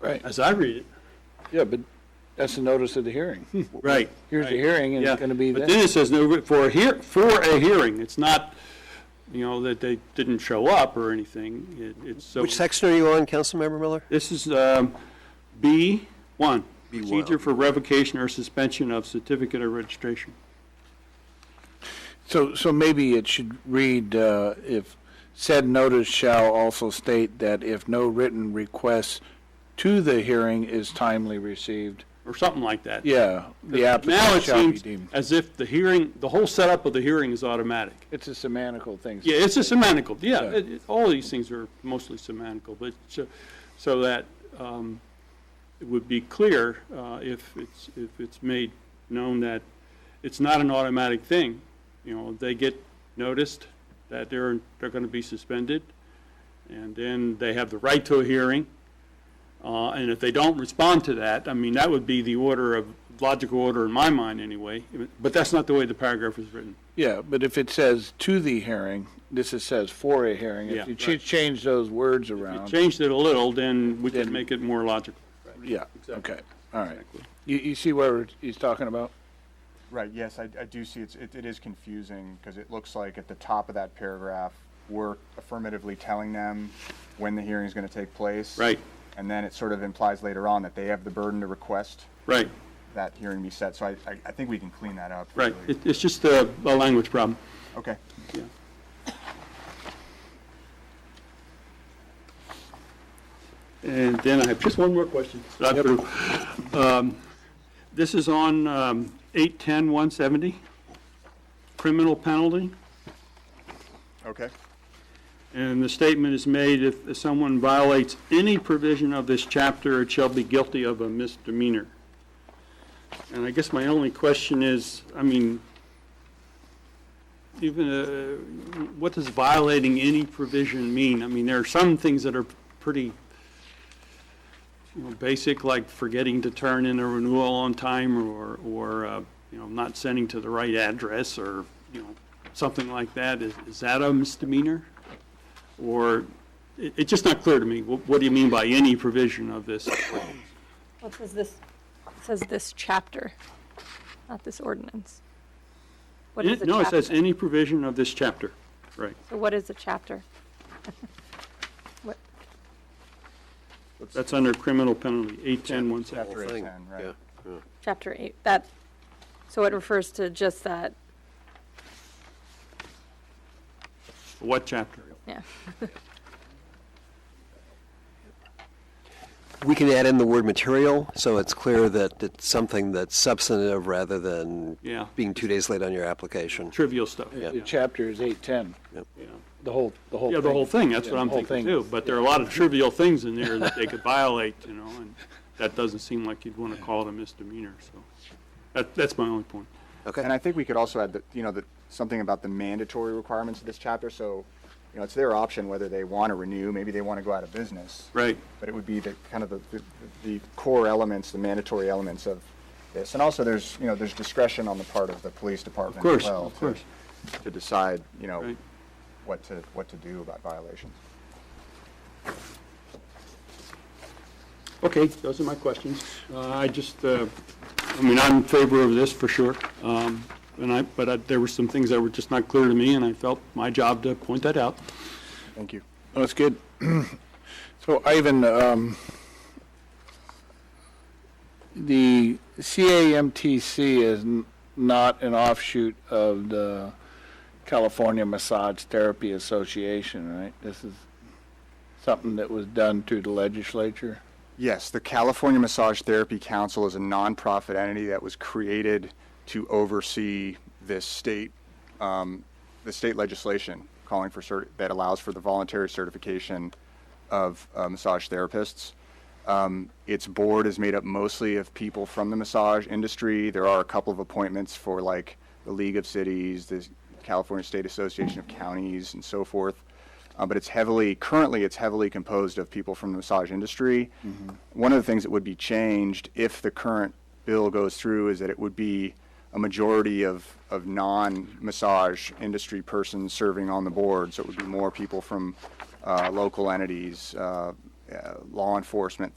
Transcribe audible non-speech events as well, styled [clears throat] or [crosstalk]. Right. as I read it. Yeah, but that's the notice of the hearing. Right. Here's the hearing, and Yeah. it's gonna be But then. then it says, no, for a hear, for a hearing, it's not, you know, that they didn't show up or anything, it, it's so. Which section are you on, Councilmember Miller? This is, um, B one. B one. Procedure for revocation or suspension of certificate of registration. So, so maybe it should read, uh, if said notice shall also state that if no written request to the hearing is timely received, or something like that. yeah, the Now applicant it shall be seems deemed. as if the hearing, the whole setup of the hearing is automatic. It's a semantical thing. Yeah, it's a semantical, yeah, Yeah. it- it- all these things are mostly semantical, but so, so that, um, it would be clear, uh, if it's, if it's made known that it's not an automatic thing. You know, they get noticed that they're, they're gonna be suspended, and then they have the right to a hearing. Uh, and if they don't respond to that, I mean, that would be the order of, logical order in my mind anyway, but that's not the way the paragraph is written. Yeah, but if it says to the hearing, this is says for a hearing. Yeah, If you ch- right. change those words If you around, changed it a little, then we could Then- make it more logical. yeah, okay, all right. You, you see where he's talking about? Right, yes, I, I do see it's, it, it is confusing because it looks like at the top of that paragraph, we're affirmatively telling them when the hearing is going to take place. Right. And then it sort of implies later on that they have the burden to request Right, that hearing be set. So I, I, I think we can clean that up. right. really. It, it's just a, a language problem. Okay. Yeah. And then I have just one more question. that I put- um, This is on um, 810-170, criminal penalty. Okay. And the statement is made, if someone violates any provision of this chapter, it shall be guilty of a misdemeanor. And I guess my only question is, I mean, even, uh, what does violating any provision mean? I mean, there are some things that are pretty, you know, basic, like forgetting to turn in a renewal on time or, or, uh, you know, not sending to the right address or, you know, something like that. Is, is that a misdemeanor? Or, it, it's just not clear to me. What, what do you mean by any provision of this? Well, it says this, it says this chapter, not this ordinance. What is a No, it says chapter? any provision of this chapter, right. So what is a chapter? What, That's under criminal penalty, eight ten one seven. After eight thing, ten, right. Yeah. chapter eight, that, so it refers to just that, What chapter? yeah. We can add in the word material, so it's clear that it's something that's substantive rather than Yeah. being two days late on your application. Trivial stuff. The chapter is eight ten, Yeah. the whole, the whole. Yeah, the whole thing, that's what Yeah, I'm the whole thinking thing. too, but there are a lot of trivial things in there that they [laughs] could violate, you know, and that doesn't seem like you'd want to call it a misdemeanor, so. That, that's my only point. And Okay, I think we could also add that, you know, that something about the mandatory requirements of this chapter. So, you know, it's their option whether they want to renew, maybe they want to go out of business. Right. but it would be the kind of the, the, the core elements, the mandatory elements of this. And also, there's you know there's discretion on the part of the police department Of course, as well of course. To, to decide you know Right. what to what to do about violations. Okay, those are my questions. Uh, I just, uh, I mean, I'm in favor of this for sure. Um, And I, but I- there were some things that were just not clear to me, and I felt my job to point that out. Thank you. Oh, That's good. [clears throat] So Ivan, um, the CAMTC is n- not an offshoot of the California Massage Therapy Association, right? This is something that was done through the legislature? Yes, the California Massage Therapy Council is a nonprofit entity that was created to oversee this state, um, the state legislation calling for cert, that allows for the voluntary certification of uh, massage therapists. Um, its board is made up mostly of people from the massage industry. There are a couple of appointments for like the League of Cities, the California State Association of Counties, and so forth uh, but it's heavily currently it's heavily composed of people from the massage industry. One of the things that would be changed if the current bill goes through is that it would be a majority of, of non-massage industry persons serving on the board, so it would be more people from uh, local entities, uh, uh, law enforcement,